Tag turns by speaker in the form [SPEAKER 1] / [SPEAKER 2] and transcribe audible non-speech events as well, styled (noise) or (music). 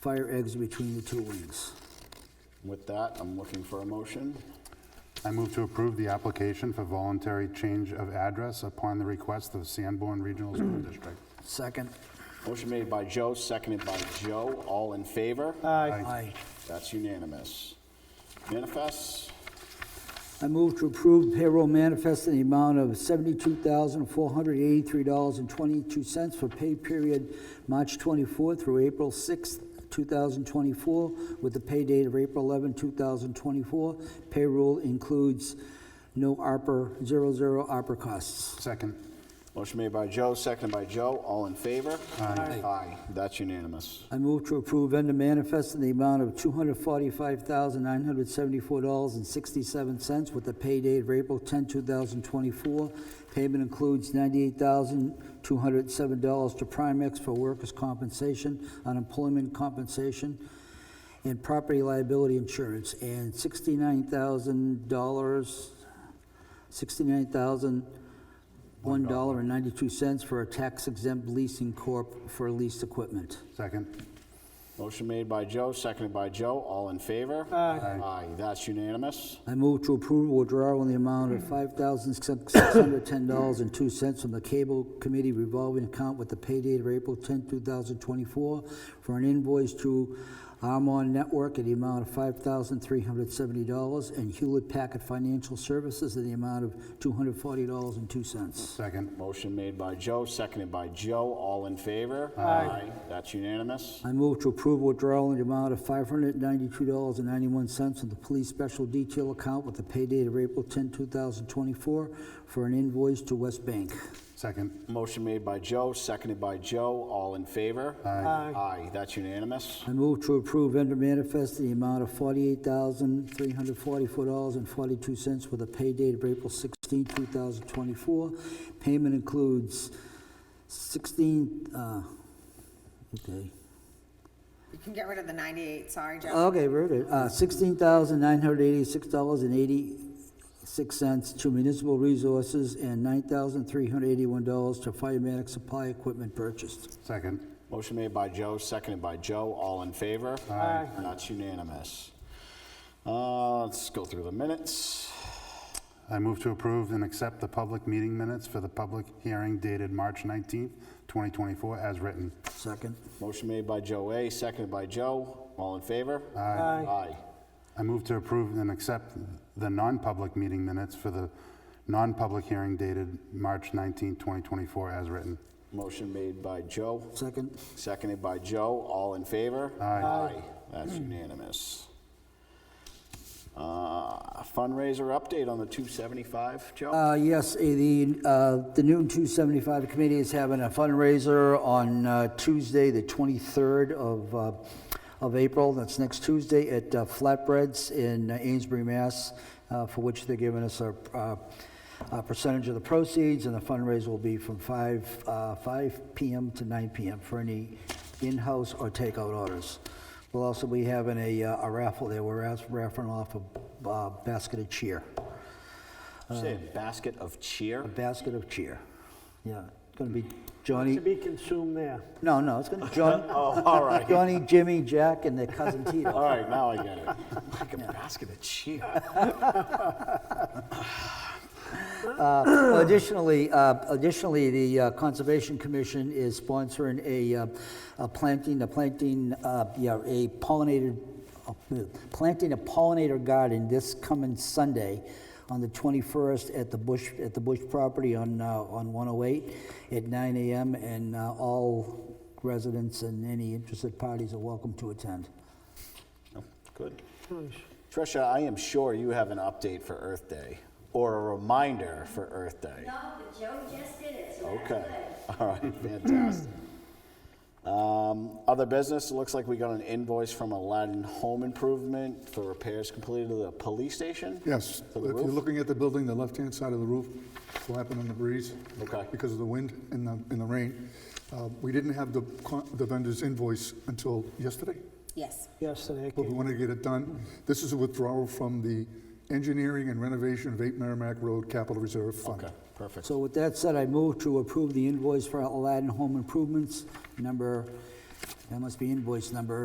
[SPEAKER 1] fire exit between the two wings.
[SPEAKER 2] With that, I'm looking for a motion.
[SPEAKER 3] I move to approve the application for voluntary change of address upon the request of Sanborn Regional School District.
[SPEAKER 1] Second.
[SPEAKER 2] Motion made by Joe, seconded by Joe. All in favor?
[SPEAKER 1] Aye.
[SPEAKER 2] That's unanimous. Manifests,
[SPEAKER 1] I move to approve payroll manifest in the amount of $72,483.22 for pay period March 24 through April 6, 2024, with the pay date of April 11, 2024. Payroll includes no ARPA, zero, zero ARPA costs.
[SPEAKER 3] Second.
[SPEAKER 2] motion made by Joe, seconded by Joe. All in favor?
[SPEAKER 1] Aye.
[SPEAKER 2] Aye, that's unanimous.
[SPEAKER 1] I move to approve vendor manifest in the amount of $245,974.67 with the pay date of April 10, 2024. Payment includes $98,207 to Primex for workers' compensation, unemployment compensation, and property liability insurance, and $69,000, $69,001.92 for a tax exempt leasing corp for leased equipment.
[SPEAKER 3] Second.
[SPEAKER 2] Motion made by Joe, seconded by Joe. All in favor? Aye. Aye, that's unanimous.
[SPEAKER 1] I move to approve a withdrawal in the amount of $5,610.02 from the Cable Committee revolving account with the pay date of April 10, 2024, for an invoice to Armon Network in the amount of $5,370, and Hewlett Packard Financial Services in the amount of $240.02.
[SPEAKER 3] Second.
[SPEAKER 2] Motion made by Joe, seconded by Joe. All in favor? Aye. That's unanimous.
[SPEAKER 1] I move to approve withdrawal in the amount of $592.91 from the police special detail account with the pay date of April 10, 2024, for an invoice to West Bank.
[SPEAKER 3] Second.
[SPEAKER 2] Motion made by Joe, seconded by Joe. All in favor? Aye. Aye, that's unanimous.
[SPEAKER 1] I move to approve vendor manifest in the amount of $48,344.42 with a pay date of April 16, 2024. Payment includes 16, uh, okay,
[SPEAKER 4] You can get rid of the 98, sorry, Joe.
[SPEAKER 1] okay, wrote it, uh, $16,986.86 to municipal resources and $9,381 to firematic supply equipment purchased.
[SPEAKER 3] Second.
[SPEAKER 2] Motion made by Joe, seconded by Joe. All in favor? Aye. That's unanimous. Uh, Let's go through the minutes.
[SPEAKER 3] I move to approve and accept the public meeting minutes for the public hearing dated March 19th, 2024, as written.
[SPEAKER 1] Second.
[SPEAKER 2] Motion made by Joe A, seconded by Joe. All in favor? Aye. Aye.
[SPEAKER 3] I move to approve and accept the non-public meeting minutes for the non-public hearing dated March 19th, 2024, as written.
[SPEAKER 2] Motion made by Joe,
[SPEAKER 1] Second.
[SPEAKER 2] Seconded by Joe, all in favor? Aye. That's unanimous. Uh, Fundraiser update on the 275, Joe?
[SPEAKER 1] Uh, Yes, eh, the, uh, the Newton 275 Committee is having a fundraiser on uh, Tuesday, the 23rd of, uh, of April. That's next Tuesday at uh, Flatbreads in uh, Amesbury, Mass., uh, for which they're giving us a, uh, a percentage of the proceeds, and the fundraiser will be from 5, uh, 5 PM to 9 PM for any in-house or takeout orders. We'll also be having a uh, a raffle there. We're ask- raffling off a uh, basket of cheer
[SPEAKER 2] Say a basket of (laughs) cheer?
[SPEAKER 1] basket of cheer. Yeah, it's gonna be Johnny,
[SPEAKER 5] To be consumed there.
[SPEAKER 1] no, no, it's
[SPEAKER 2] (laughs)
[SPEAKER 1] gonna be Johnny,
[SPEAKER 2] Oh, all right,
[SPEAKER 1] Johnny, Jimmy, Jack, and their cousin
[SPEAKER 2] all
[SPEAKER 1] Tito.
[SPEAKER 2] right, now I get it. (laughs) Like a basket of cheer.
[SPEAKER 1] Well, Additionally, uh, additionally, the uh, Conservation Commission is sponsoring a, uh, a planting, a planting, uh, yeah, a pollinated, uh, planting a pollinator garden this coming Sunday on the 21st at the Bush, at the Bush property on, uh, on 108 at 9 AM, and uh, all residents and any interested parties are welcome to attend.
[SPEAKER 2] Oh, Good. Trisha, I am sure you have an update for Earth Day, or a reminder for Earth Day.
[SPEAKER 6] No, but Joe just did it, so that's
[SPEAKER 2] Okay, (laughs)
[SPEAKER 6] good.
[SPEAKER 2] all right, fantastic. Um, Other business, it looks like we got an invoice from Aladdin Home Improvement for repairs completed to the police station?
[SPEAKER 7] Yes,
[SPEAKER 2] For
[SPEAKER 7] if
[SPEAKER 2] the
[SPEAKER 7] you're
[SPEAKER 2] roof?
[SPEAKER 7] looking at the building, the left-hand side of the roof flapping in the breeze.
[SPEAKER 2] Okay.
[SPEAKER 7] Because of the wind and the, and the rain. Uh, We didn't have the con- the vendor's invoice until yesterday,
[SPEAKER 4] Yes.
[SPEAKER 5] Yesterday, I
[SPEAKER 7] but we
[SPEAKER 5] came-
[SPEAKER 7] wanted to get it done. This is a withdrawal from the engineering and renovation of 8 Merrimack Road Capital Reserve Fund.
[SPEAKER 2] Okay, perfect.
[SPEAKER 1] So with that said, I move to approve the invoice for Aladdin Home Improvements, number, that must be invoice number